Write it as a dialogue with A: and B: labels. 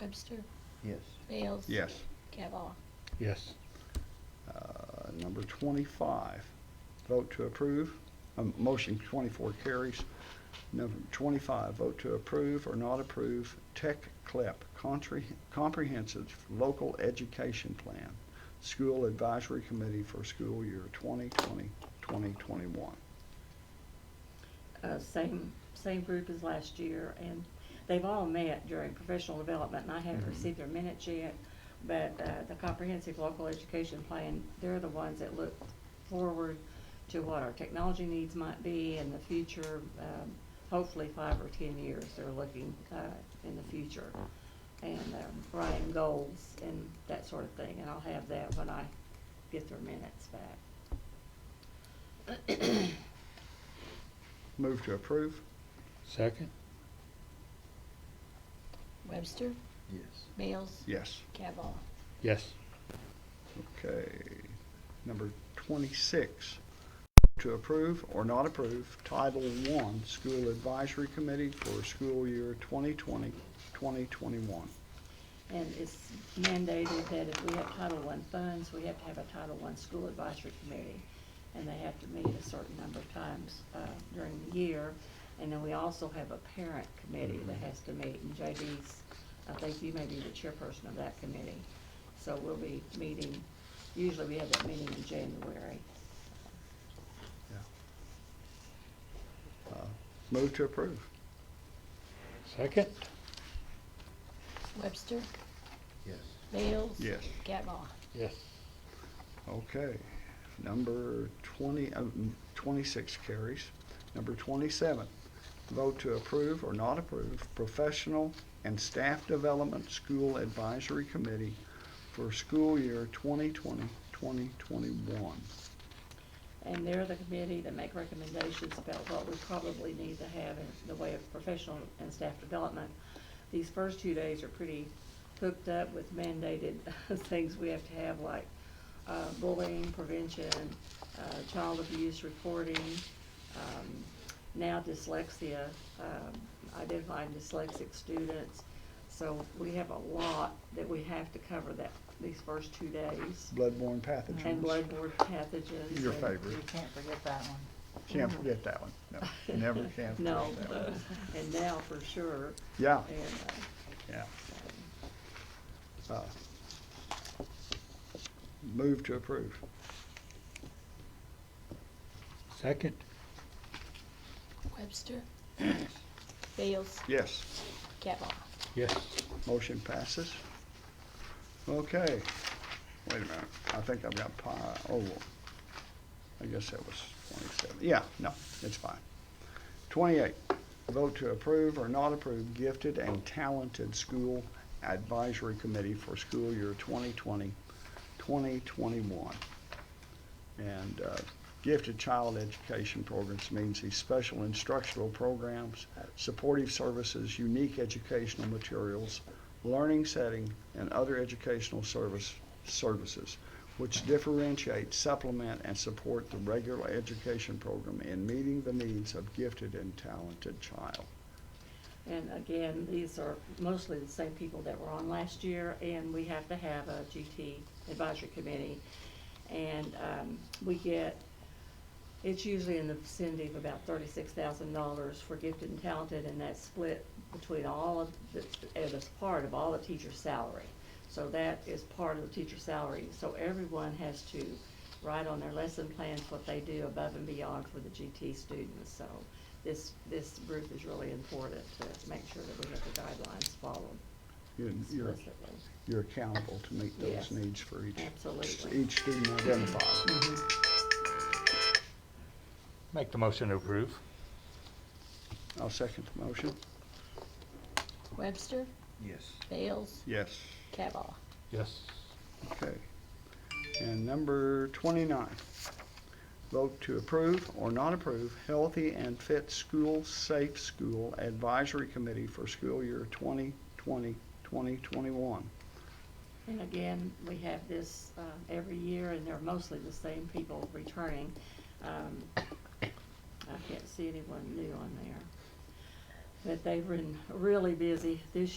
A: Webster,
B: Yes.
A: Bales.
C: Yes.
A: Cavall.
D: Yes.
C: Uh, Number 25, vote to approve, um, motion 24 carries. Number 25, vote to approve or not approve Tech CLEP, Contra- Comprehensive Local Education Plan, School Advisory Committee for School Year 2020, 2021.
E: uh, same, same group as last year, and they've all met during professional development, and I haven't received their minutes yet, but uh, the comprehensive local education plan, they're the ones that look forward to what our technology needs might be in the future, um, hopefully five or ten years, they're looking uh, in the future, and um, writing goals and that sort of thing, and I'll have that when I get their minutes back.
C: Move to approve?
D: Second?
A: Webster,
B: Yes.
A: Bales.
C: Yes.
A: Cavall.
D: Yes.
C: Okay. Number 26, to approve or not approve Title I School Advisory Committee for School Year 2020, 2021.
E: And it's mandated that if we have Title I funds, we have to have a Title I school advisory committee. And they have to meet a certain number of times uh, during the year. And then we also have a parent committee that has to meet. And JD's, I think you may be the chairperson of that committee. So we'll be meeting, usually we have that meeting in January.
C: Uh, Move to approve.
D: Second?
A: Webster,
B: Yes.
A: Bales.
C: Yes.
A: Cavall.
D: Yes.
C: Okay. Number 20, uh, mm, 26 carries. Number 27, vote to approve or not approve Professional and Staff Development School Advisory Committee for School Year 2020, 2021.
E: And they're the committee that make recommendations about what we probably need to have in the way of professional and staff development. These first two days are pretty hooked up with mandated things we have to have, like uh, bullying prevention, uh, child abuse reporting, um, now dyslexia, um, identifying dyslexic students. So we have a lot that we have to cover that, these first two days.
C: Bloodborne pathogens.
E: And bloodborne pathogens.
C: Your
E: and-
C: favorite.
F: You can't forget that one.
C: Can't forget that one. No, never can
E: No, uh,
C: forget that one.
E: and now for sure,
C: Yeah,
E: and, uh,
C: yeah. Uh, Move to approve.
D: Second?
A: Webster. Bales.
C: Yes,
A: Cavall.
D: Yes.
C: motion passes. Okay, wait a minute. I think I've got pi, oh, I guess that was twenty-seven. Yeah, no, it's fine. Twenty-eight, vote to approve or not approve gifted and talented school advisory committee for school year 2020, 2021. And uh, gifted child education programs means these special instructional programs, uh, supportive services, unique educational materials, learning setting, and other educational service, services, which differentiate, supplement, and support the regular education program in meeting the needs of gifted and talented child.
E: and again, these are mostly the same people that were on last year, and we have to have a GT advisory committee. And, um, we get, it's usually in the vicinity of about thirty-six thousand dollars for gifted and talented, and that's split between all of, the- it is part of all the teacher's salary. So that is part of the teacher's salary, so everyone has to write on their lesson plans what they do above and beyond for the GT students, so this, this group is really important to make sure that we have the guidelines followed
C: You're- You're,
E: explicitly.
C: you're accountable to meet those
E: Yes,
C: needs for each,
E: absolutely.
C: each student identified.
F: Make the motion to approve.
C: I'll second the motion.
A: Webster,
B: Yes.
A: Bales.
C: Yes.
A: Cavall.
D: Yes.
C: Okay. And number twenty-nine, vote to approve or not approve Healthy and Fit School Safe School Advisory Committee for school year 2020-2021.
E: And again, we have this uh, every year, and they're mostly the same people returning. Um, I can't see anyone new on there. But they've been really busy this